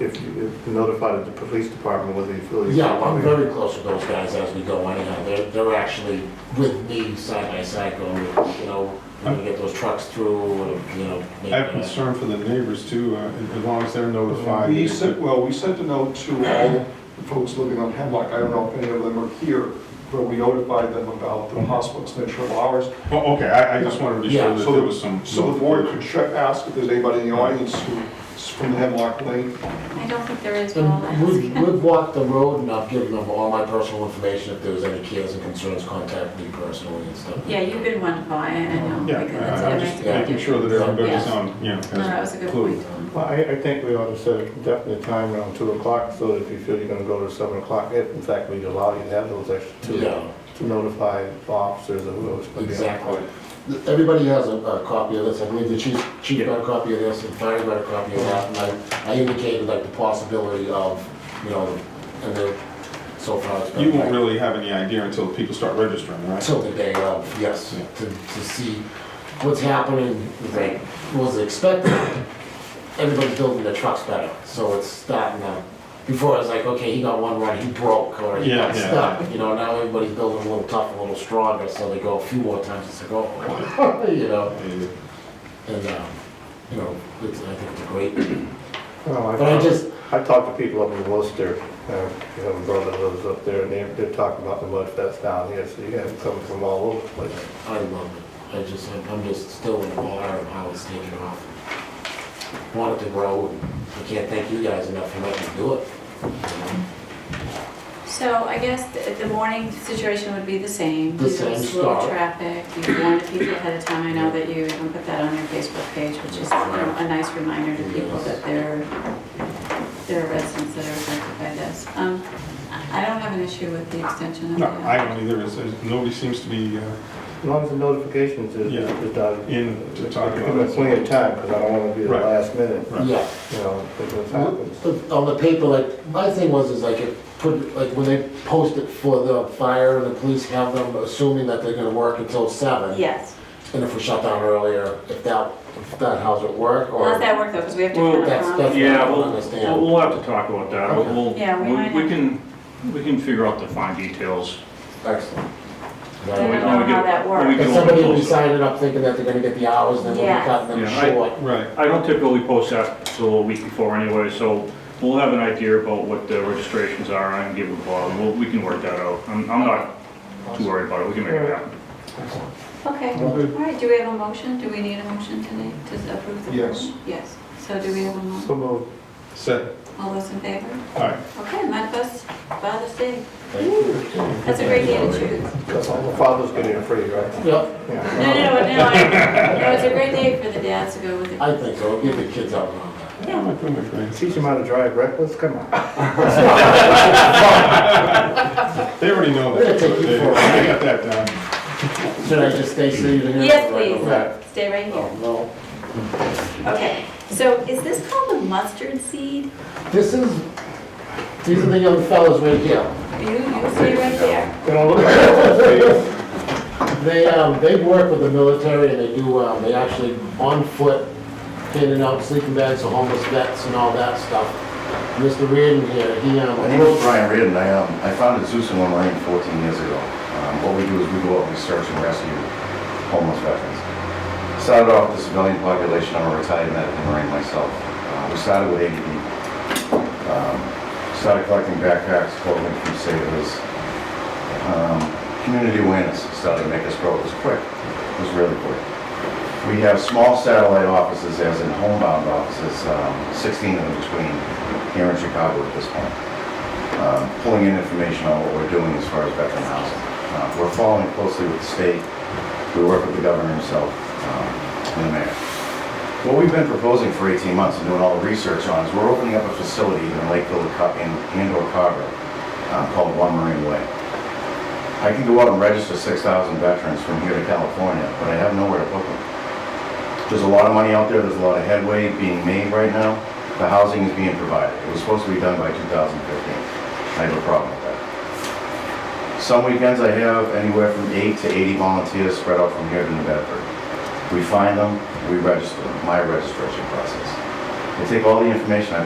if you if you notified the police department whether you feel. you- Yeah, well, I'm very close with those guys as we go anyhow. They're, they're actually with me side by side going, with, you know, when we get those trucks through, or, you know. make I have that- concern for the neighbors too, uh, as long as they're notified. We sent, well, we sent a note to all the folks living on Hemlock, I don't know if any of them are here, where we notified them about the possible extension of hours. Oh, okay, I, I just wanted to be sure Yeah. that So there the- was some. So the board could check, ask if there's anybody in the audience who's from Hemlock Lane. I don't think there is, but I'll And ask. we've, we've walked the road and I've given them all my personal information. If there was any cares and concerns, contact me personally and stuff. Yeah, you've been wonderful, I I know. Yeah, because that's I- I'm just everything. making sure that everybody's Yeah. on, you know. No, that was a good clue. point. Well, I, I think we ought to set a definite time around two o'clock, so that if you feel you're gonna go to seven o'clock, if in fact we allow you to have those extra two, Yeah, to notify officers or whoever's gonna be on. exactly. Everybody has a, a copy of this. I believe the chief, chief got a copy of this and fire got a copy of that. And I, I indicated like the possibility of, you know, and they so far it's been. You won't like- really have any idea until people start registering, right? Until the day of, yes, Yeah. to, to see what's happening, Right. what was expected. Everybody's building their trucks better, so it's starting now. Before, it's like, okay, he got one run, he broke, or he Yeah, got yeah. stuck, you know, now everybody's building a little tougher, a little stronger, so they go a few more times, it's like, oh, you know, Uh, and, um, you know, it's, I think it's great. Well, But I just, I talked to people up in Worcester, uh, you have a brother that lives up there, and they're, they're talking about the mud fest down here, so you have some from all over the place. I love it. I just, I'm- I'm just still in awe of how it's taken off. Want it to grow, and I can't thank you guys enough for letting me do it. So I guess the, the morning situation would be the same. The You know, same Slow start. traffic, you warn the people ahead of time, I know that you even put that on your Facebook page, which is you know, a nice reminder to people that there, there are residents that are affected by this. Um, I I don't have an issue with the extension of the. No, I don't either, It's- there's- nobody seems to be, uh, As long as the notifications is, Yeah. is done. In to talk about Give us it. plenty of time, because I don't wanna be the Right. last minute, Right. Yeah. you know, if this happens. But On the paper, like, my thing was is like, it put, like, when they post it for the fire and the police have them assuming that they're gonna work until seven. Yes, And if we shut down earlier, if that, if that, how's it work or? how's that work though, because we have to. Well, kind of That's, run- that's what I Yeah, don't we'll, understand. we'll have to talk about that. Okay. We'll, Yeah, we might we we have- can, we can figure out the fine details. Excellent. I don't we- know we get- how that when we works. get And a somebody little will be closer. signing up thinking that they're gonna get the hours and then we'll be Yeah. cutting them Yeah, I- short. right. I don't typically post that till a week before anyway, so we'll have an idea about what the registrations are and give a call. We'll, we can work that out. I'm, I'm not too worried about it. We can make it happen. Okay, all right, do we have a motion? Do we need a motion tonight to approve the? Yes. motion? Yes, so do we have a motion? So moved. Set, All those in favor? all right. Okay, manifest Father's Day. Thank you. That's a great day to choose. Fathers get in free, right? Yep, No, Yeah. no, no, no, I- no, it's a great day for the dads to go with the. I think so, give the kids out and all that. Yeah, I'm doing my thing. Teach them how to drive reckless, come on. They already know We're gonna that. take you They for a they got that down. Should I just stay seated here? Yes, Right. please, stay right here. Oh, no. Oh. Okay, so is this called the mustard seed? This is, these are the young fellas right here. You, you stay right there. They don't look like it. They, um, they work with the military and they do, um, they actually on foot, handing out sleeping bags to homeless vets and all that stuff. Mr. Reardon here, he, um, My name is Brian Reardon. I, um, I founded Zeus in One Lane 14 years ago. Um, what we do is we go out and we search and rescue homeless veterans. Started off with the civilian population. I'm a retired medic and Marine myself. Uh, we started with 80 people. Um, started collecting backpacks, clothing from sailors. Um, community awareness started to make us grow. It was quick. It was really quick. We have small satellite offices, as in homebound offices, um, 16 in between here in Chicago at this point um, pulling in information on what we're doing as far as veteran housing. Uh, We're following closely with the state, we work with the governor himself um, and the mayor. What we've been proposing for 18 months and doing all the research on is we're opening up a facility in Lakeville to Co- in- and or Carver uh, called One Marine Way. I can go out and register 6,000 veterans from here to California, but I have nowhere to put them. There's a lot of money out there, there's a lot of headway being made right now. The housing is being provided. It was supposed to be done by 2015. I have a problem with that. Some weekends I have anywhere from eight to 80 volunteers spread out from here to New Bedford. We find them, we register them, my registration process. They take all the information I